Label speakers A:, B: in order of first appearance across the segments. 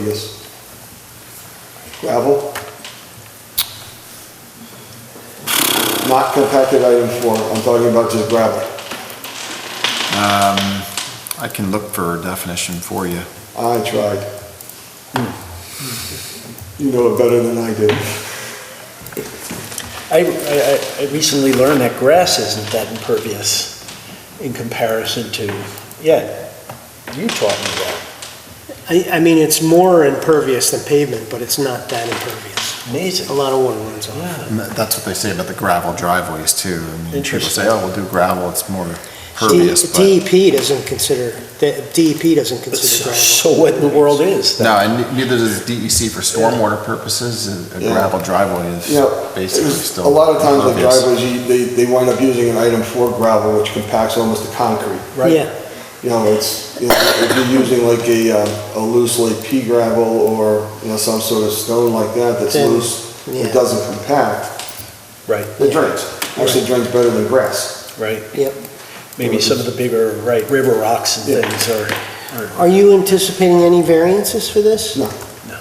A: impervious? Gravel? Not compacted item four, I'm talking about just gravel.
B: I can look for a definition for you.
A: I tried. You know it better than I do.
C: I, I- I I recently learned that grass isn't that impervious in comparison to, yeah, you taught me that.
D: I, I mean, it's more impervious than pavement, but it's not that impervious. A
C: Amazing.
D: lot of water runs off.
C: Yeah.
B: And that- that's what they say about the gravel driveways too. I mean, people
C: Interesting.
B: say, oh, we'll do gravel, it's
A: E
B: more pervious, but.
D: DEP E doesn't consider, the- DEP doesn't consider
C: So
D: gravel.
C: so what in the world is that?
B: No, and ne- neither does DEC for stormwater purposes, a a
A: Yeah.
B: gravel driveway
A: Yeah,
B: is
A: it
B: basically
A: was-
B: still.
A: A lot of times the
B: impervious.
A: driveways, you- they, they wind up using an item four gravel, which compacts almost to concrete.
C: Right.
D: Yeah,
A: You know, it's, you know, if you're using like a, um, a loose like pea gravel or, you know, some sort of stone like that that's
D: Then,
A: loose,
D: yeah.
A: it doesn't compact,
C: Right,
A: it drains. Actually drains better than grass.
C: right.
D: yep.
C: Maybe some of the bigger, right, river rocks and
A: Yeah.
C: things are,
D: Are you anticipating any variances for this?
A: No.
C: No.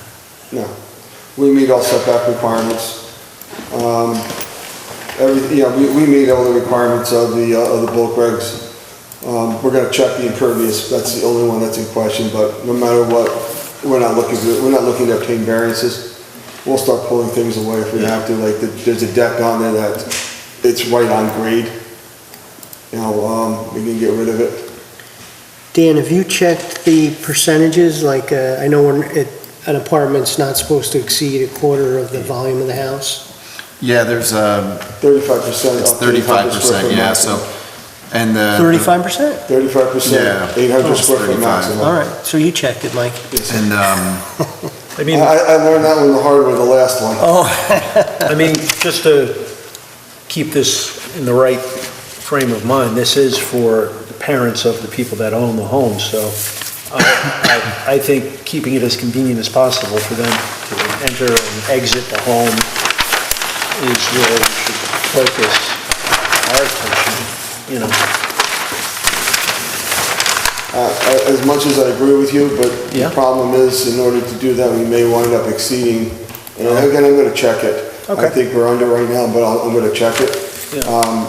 A: No. We meet all setback requirements. Um, every, yeah, we, we meet all the requirements of the, uh, of the bulk regs. Um, we're gonna check the impervious, that's the only one that's in question, but no matter what, we're not looking to, we're not looking to obtain variances. We'll start pulling things away if we have to, like, the- there's a deck on there that, it's right on grade. You know, um, we can get rid of it.
D: Dan, have you checked the percentages? Like, uh, I know when it- an apartment's not supposed to exceed a quarter of the volume of the house.
B: Yeah, there's, um,
A: Thirty-five percent.
B: it's thirty-five percent, yeah, so, and the.
D: Thirty-five percent?
A: Thirty-five
B: Yeah.
A: percent, eight hundred square foot
B: 35.
A: maximum.
D: All right, so you checked it, Mike.
B: And, um,
C: I
A: I,
C: mean,
A: I learned that one the hard way, the last one.
D: Oh.
C: I mean, just to keep this in the right frame of mind, this is for the parents of the people that own the home, so uh, I, I- I think keeping it as convenient as possible for them to enter and exit the home is where we should focus our attention, you know.
A: Uh, a- As much as I agree with you, but the
C: Yeah.
A: problem is, in order to do that, we may wind up exceeding, and again, I'm gonna check it. I
C: Okay.
A: think we're under right now, but I'll- I'm gonna check it.
C: Yeah.
A: Um,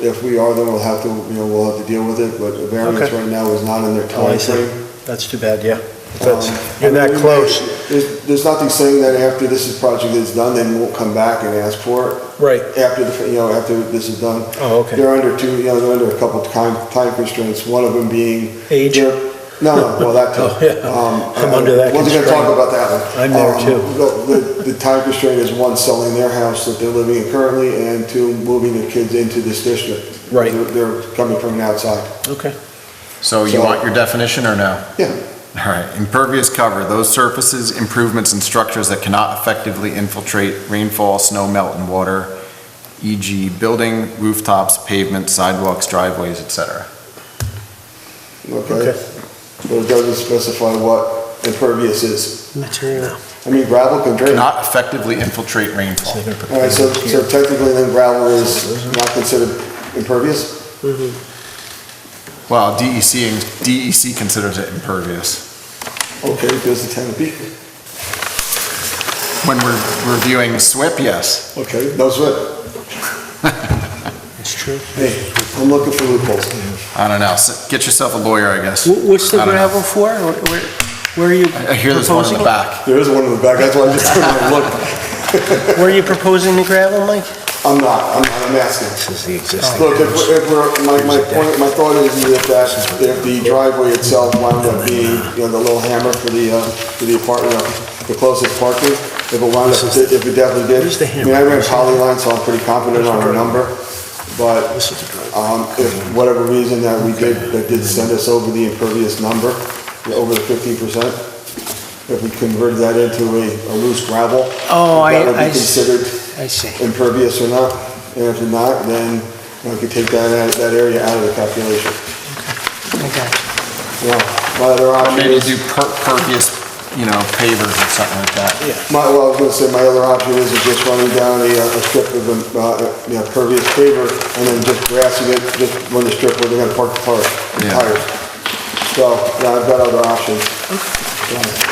A: If we are, then we'll have to, you know, we'll have to deal with it, but a variance
C: Okay.
A: right now is not in their
C: Oh, I see.
A: timeframe.
C: That's too bad, yeah.
A: Um,
C: You're that
A: we may-
C: close.
A: There's, there's nothing saying that after this is- project is done, they won't come back and ask for it.
C: Right.
A: after, the you know, after this is done.
C: Oh, okay.
A: They're under two, you know, they're under a couple of time, time constraints, one of them being.
C: Age?
A: they're- No, no, well, that too.
C: Oh, yeah.
A: Um,
C: I'm
A: uh,
C: under that
A: Wasn't gonna talk
C: constraint.
A: about that one.
C: I'm there,
A: Um,
C: too.
A: The, the- the time constraint is one, selling their house that they're living in currently, and two, moving their kids into this district.
C: Right.
A: They're- They're coming from the outside.
C: Okay.
B: so you
A: So-
B: want your definition or no?
A: Yeah,
B: All right, impervious cover, those surfaces, improvements, and structures that cannot effectively infiltrate rainfall, snow melt, and water, e.g. building, rooftops, pavements, sidewalks, driveways, etc.
A: okay. But it doesn't specify what impervious is.
D: Material.
A: I mean, gravel can drain.
B: Cannot effectively infiltrate rainfall.
A: All right, so, so technically then gravel is not considered impervious?
B: Well, DEC, and- DEC considers it impervious.
A: Okay, there's the ten feet.
B: When we're reviewing SWIP, yes.
A: Okay, no sweat.
D: That's true.
A: Hey, I'm looking for loopholes.
B: I don't know, s- get yourself a lawyer, I guess.
D: What's the
B: I don't know.
D: gravel for? Where, where- where are you
B: I hear there's one in
D: proposing
B: the
D: it?
B: back.
A: There is one in the back, that's why I just turned and looked.
D: Where are you proposing the gravel, Mike?
A: I'm not, I'm not, I'm asking.
C: This is the
D: Oh,
C: existing.
A: Look, if we're, if we're, my, my point, my thought is that that, if the driveway itself wound up being, you know, the little hammer for the, uh, for the apartment, uh, the closest parking, if it wound up, if it definitely did.
C: Where's the
A: I mean, I ran poly line, so I'm pretty confident on our number, but
C: This is the driveway.
A: Um, if whatever reason that we did, that did send us over the impervious number, over the fifteen percent, if we converted that into a, a loose gravel.
D: Oh, I-
A: That would
D: I
A: be
D: s-
A: considered
D: I see.
A: impervious or not, and if not, then we could take that, that area out of the calculation.
D: I got you.
A: Yeah, my other option
B: Maybe
A: is,
B: do per- pervious, you know, pavers or something like that.
A: my, well, I was gonna say, my other option is to just running down a, uh, a strip of, um, uh, you know, pervious paver, and then just grassing it, just run the strip where they're gonna park the car,
B: Yeah.
A: tires. So, yeah, I've got other options. Yeah.